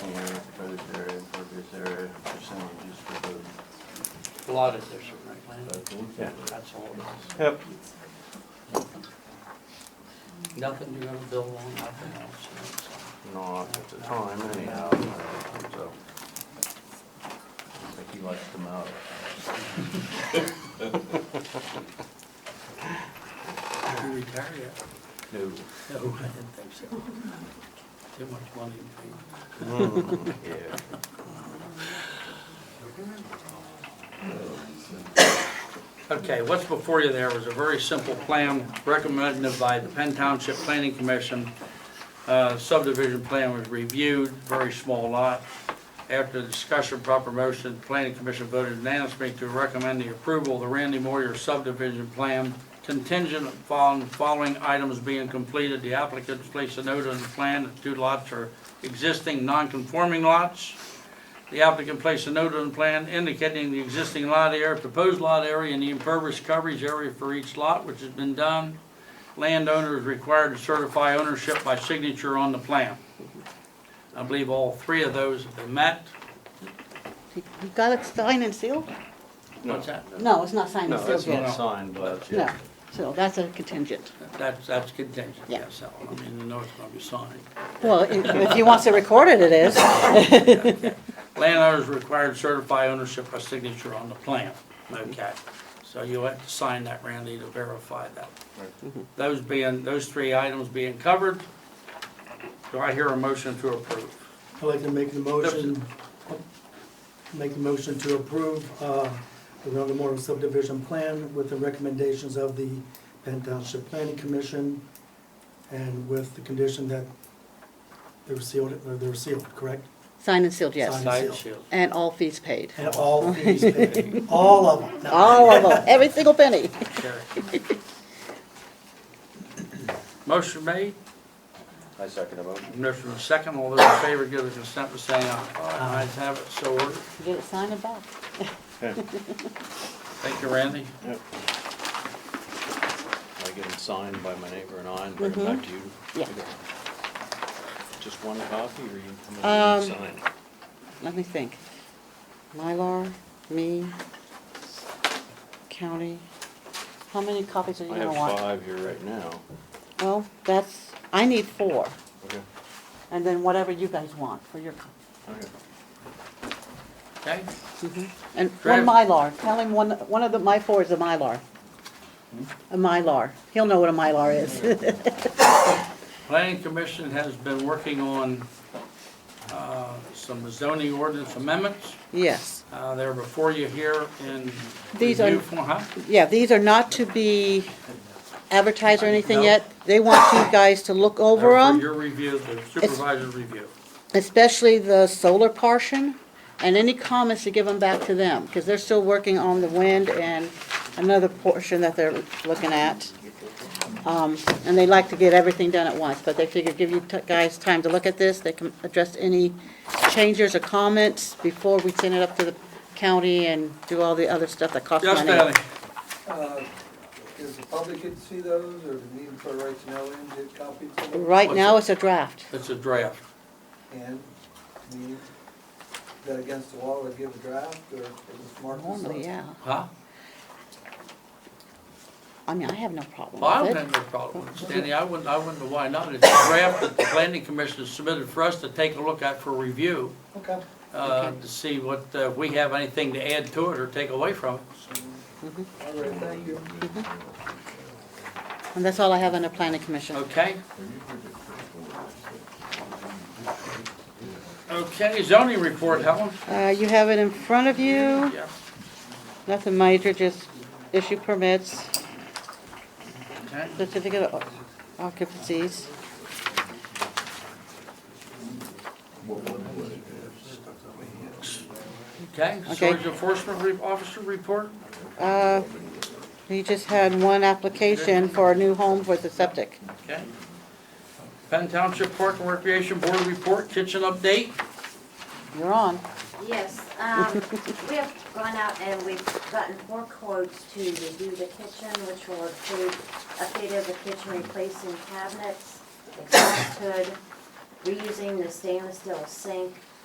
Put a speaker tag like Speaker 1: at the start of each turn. Speaker 1: lot of this in right land.
Speaker 2: That's what we
Speaker 3: Yeah.
Speaker 1: That's all it
Speaker 3: Yep.
Speaker 1: is. Nothing you're gonna build on, nothing else.
Speaker 3: Not at the time anyhow, so.
Speaker 2: I think he likes them out.
Speaker 1: Did you retire yet?
Speaker 3: No.
Speaker 1: No, I didn't think so. Too much money in pain.
Speaker 3: Mm, Yeah.
Speaker 1: Okay, what's before you there was a very simple plan recommended by the Penn Township Planning Commission. Uh, Subdivision plan was reviewed, very small lot. After discussion, proper motion, the Planning Commission voted unanimously to recommend the approval of the Randy Moyer subdivision plan contingent upon following items being completed. The applicants place a note on the plan that two lots are existing non-conforming lots. The applicant placed a note on the plan indicating the existing lot area, proposed lot area, and the impervious coverage area for each lot, which has been done. Landowner is required to certify ownership by signature on the plan. I believe all three of those have been met.
Speaker 4: You you got it signed and sealed?
Speaker 1: What's that?
Speaker 4: No, it's not signed
Speaker 3: No,
Speaker 4: and sealed
Speaker 3: that's
Speaker 4: yet.
Speaker 3: not signed, but
Speaker 4: No,
Speaker 3: yeah.
Speaker 4: so that's a contingent.
Speaker 1: That's, that's contingent,
Speaker 4: Yeah.
Speaker 1: yes, Al. I mean, the note's gonna be signed.
Speaker 4: Well, i- if he wants to record it, it is.
Speaker 1: Landowner is required to certify ownership by signature on the plan. Okay, so you'll have to sign that, Randy, to verify that. Those being, those three items being covered, do I hear a motion to approve?
Speaker 5: I'd like to make the motion, make the motion to approve uh, the Round Memorial subdivision plan with the recommendations of the Penn Township Planning Commission and with the condition that they were sealed, or they were sealed, correct?
Speaker 4: Signed and sealed, yes.
Speaker 5: Signed.
Speaker 1: Sign seal.
Speaker 4: And all fees paid.
Speaker 5: And all fees paid, all of them. No.
Speaker 4: All of them, every single penny.
Speaker 1: Carry. Motion made,
Speaker 3: I second the motion.
Speaker 1: motion in second, all those in favor give their consent by saying aye. Ayes have it, so ordered.
Speaker 4: Get it signed and back.
Speaker 1: Thank you, Randy.
Speaker 3: I get it signed by my neighbor and I and bring it
Speaker 4: Mm-hmm.
Speaker 3: back to you.
Speaker 4: Yeah.
Speaker 3: Just one copy or you come in
Speaker 4: Um,
Speaker 3: and sign?
Speaker 4: Let me think. Mylar, me, county. How many copies are you
Speaker 3: I
Speaker 4: gonna
Speaker 3: have
Speaker 4: want?
Speaker 3: five here right now.
Speaker 4: Well, that's, I need four,
Speaker 3: Okay.
Speaker 4: and then whatever you guys want for your copy.
Speaker 3: Okay.
Speaker 1: Okay,
Speaker 4: And one
Speaker 1: Travis.
Speaker 4: Mylar, tell him one, one of the, my four is a Mylar.
Speaker 1: Hmm?
Speaker 4: A Mylar, he'll know what a Mylar is.
Speaker 1: planning commission has been working on, uh, some zoning ordinance amendments.
Speaker 4: Yes,
Speaker 1: Uh, They're before you here in
Speaker 4: These are-
Speaker 1: review form, huh?
Speaker 4: yeah, these are not to be advertised or anything
Speaker 1: No.
Speaker 4: yet. They want you guys to look
Speaker 1: They're
Speaker 4: over
Speaker 1: for
Speaker 4: them,
Speaker 1: Your review, the supervisor's review.
Speaker 4: especially the solar portion, and any comments to give them back to them, because they're still working on the wind and another portion that they're looking at. Um, And they like to get everything done at once, but they figure give you t- guys time to look at this, they can address any changes or comments before we send it up to the county and do all the other stuff that costs
Speaker 1: Yes,
Speaker 4: money.
Speaker 1: Danny?
Speaker 6: Uh, Does the public get to see those, or do we need for right to know and get copies of them?
Speaker 4: Right now, it's a draft.
Speaker 1: It's a draft.
Speaker 6: And, I mean, is that against the law to give a draft, or is it marked as
Speaker 4: Normally, yeah.
Speaker 1: Huh?
Speaker 4: I mean, I have no
Speaker 1: Well, I
Speaker 4: problem
Speaker 1: don't
Speaker 4: with it.
Speaker 1: have no problem with it, Stanley. I wouldn't, I wouldn't know why not. It's a draft that the planning commission submitted for us to take a look at for review,
Speaker 6: Okay.
Speaker 1: uh, to see what, uh, if we have anything to add to it or take away from it.
Speaker 6: All right, thank you.
Speaker 4: And that's all I have on the planning commission.
Speaker 1: Okay? Okay, zoning report, Helen?
Speaker 4: Uh, You have it in front of you,
Speaker 1: Yeah.
Speaker 4: nothing major, just issue permits,
Speaker 1: Okay.
Speaker 4: certificate of occupancies.
Speaker 1: Okay,
Speaker 4: Okay.
Speaker 1: storage enforcement re- officer report?
Speaker 4: Uh, He just had one application for a new home for the septic.
Speaker 1: Okay. Penn Township Park and Recreation Board report, kitchen update.
Speaker 4: You're on.
Speaker 7: Yes, um, we have gone out and we've gotten four quotes to redo the kitchen, which will include update of the kitchen, replacing cabinets, exhaust hood, reusing the stainless steel sink,